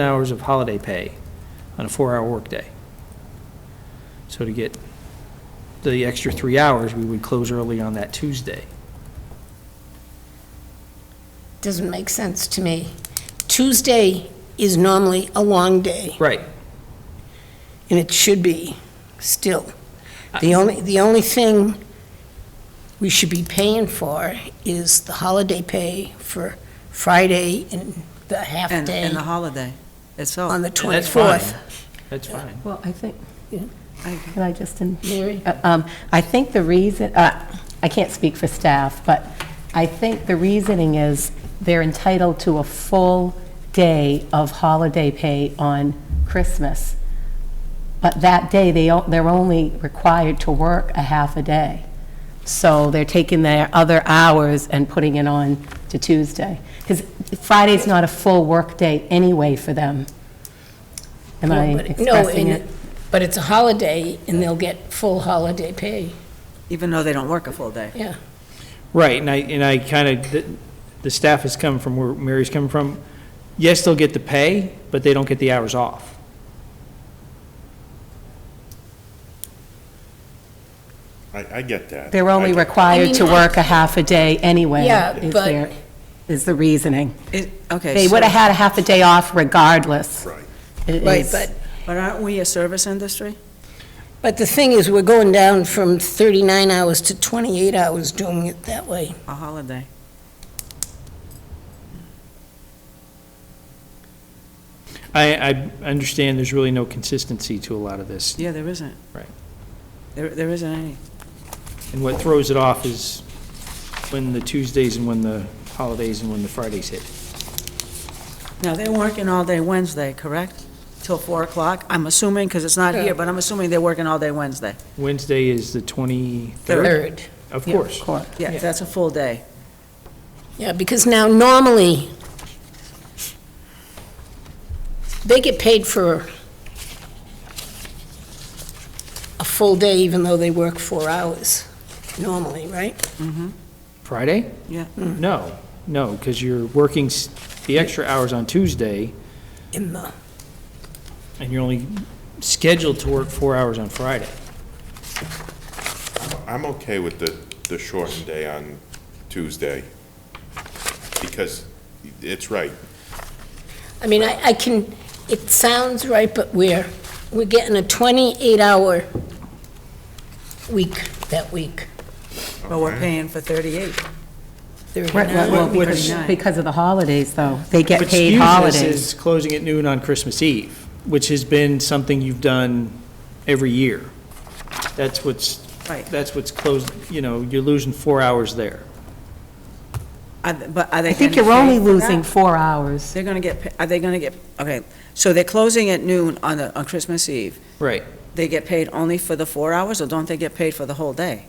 hours of holiday pay on a four-hour workday. So to get the extra three hours, we would close early on that Tuesday. Doesn't make sense to me. Tuesday is normally a long day, Right. and it should be still. The only, the only thing we should be paying for is the holiday pay for Friday and the half And, day and the holiday itself. on the And that's fine. 24th. That's fine. Well, I think, I- can I just, in- Mary? uh, um, I think the reason, uh, I can't speak for staff, but I think the reasoning is they're entitled to a full day of holiday pay on Christmas, but that day, they, o- they're only required to work a half a day. So they're taking their other hours and putting it on to Tuesday. Because Friday's not a full work day anyway for them. Am I No, but- no, expressing and it? But it's a holiday, and they'll get full holiday pay, Even though they don't work a full day. yeah. Right, and I, and I kind of, the, the staff has come from where Mary's coming from. Yes, they'll get the pay, but they don't get the hours off. I, I get that. They're only I get- required to I mean, work a half a day anyway. Yeah, is but- their- Is the reasoning. It- Okay. They so- would have had a half a day off regardless. Right. It Right, is- but But aren't we a service industry? But the thing is, we're going down from 39 hours to 28 hours doing it that way. A holiday. I, I understand there's really no consistency to a lot of this. Yeah, there isn't. Right. There, there isn't any. And what throws it off is when the Tuesdays and when the holidays and when the Fridays hit. Now, they're working all day Wednesday, correct? Till four o'clock, I'm assuming, because it's not Yeah. here, but I'm assuming they're working all day Wednesday. Wednesday is the 23rd, Third. of Yeah, course. Of course. Yeah, Yeah. that's a full day. Yeah, because now normally, they get paid for a full day even though they work four hours normally, right? Friday? Yeah. No, no, because you're working s- the extra hours on Tuesday, In the, and you're only scheduled to work four hours on Friday. I'm okay with the, the shortened day on Tuesday, because it's right. I mean, I, I can, it sounds right, but we're, we're getting a 28-hour week that week. But we're paying for thirty-eight. Right, right, well, 39. because- Because of the holidays, though. They get What paid skews us holidays. is closing at noon on Christmas Eve, which has been something you've done every year. That's what's, Right. that's what's closed, you know, you're losing four hours there. Are th- But are they? I think gonna you're only pay for that? losing four hours. They're gonna get, pa- are they gonna get, okay, so they're closing at noon on the, on Christmas Eve. Right. They get paid only for the four hours, or don't they get paid for the whole day?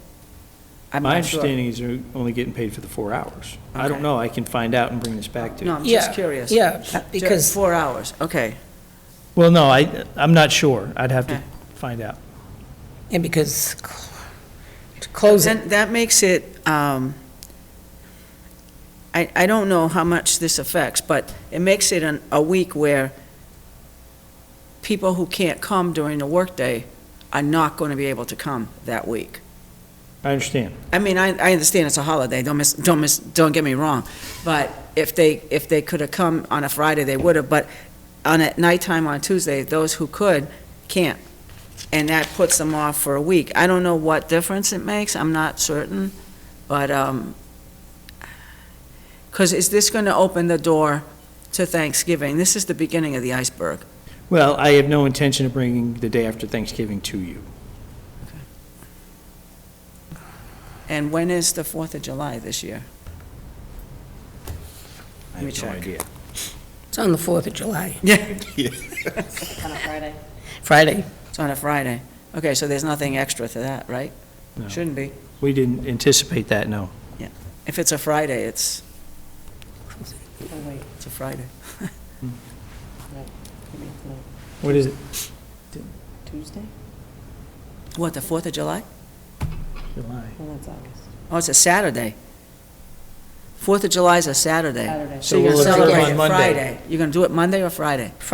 I'm My not sure. understanding is you're only getting paid for the four hours. I don't Okay. know, I can find out and bring this back to you. No, I'm just Yeah, curious. Uh, Yeah, Ju- because Four hours, okay. Well, no, I, I'm not sure. I'd have to Okay. find out. And because cl- to close it, Then that makes it, um, I, I don't know how much this affects, but it makes it an, a week where people who can't come during the workday are not gonna be able to come that week. I understand. I mean, I, I understand it's a holiday, don't miss, don't miss, don't get me wrong, but if they, if they could have come on a Friday, they would have, but on at nighttime on Tuesday, those who could, can't. And that puts them off for a week. I don't know what difference it makes, I'm not certain, but, um 'cause because is this going to open the door to Thanksgiving? This is the beginning of the iceberg. Well, I have no intention of bringing the day after Thanksgiving to you. And when is the Fourth of July this year? I Let me have no check. idea. it's on the 4th of July, Yeah. On a Friday. Friday. It's on a Friday. Okay, so there's nothing extra to that, right? No. Shouldn't be. We didn't anticipate that, no. If it's a Friday, it's, it's a Friday. What is it? Tuesday? What, the Fourth of July? July. Well, that's August. Oh, it's a Saturday. Fourth of July is a Saturday. Saturday. So you're So gonna we'll observe celebrate on it Monday. Friday. You're gonna do it Monday or Friday?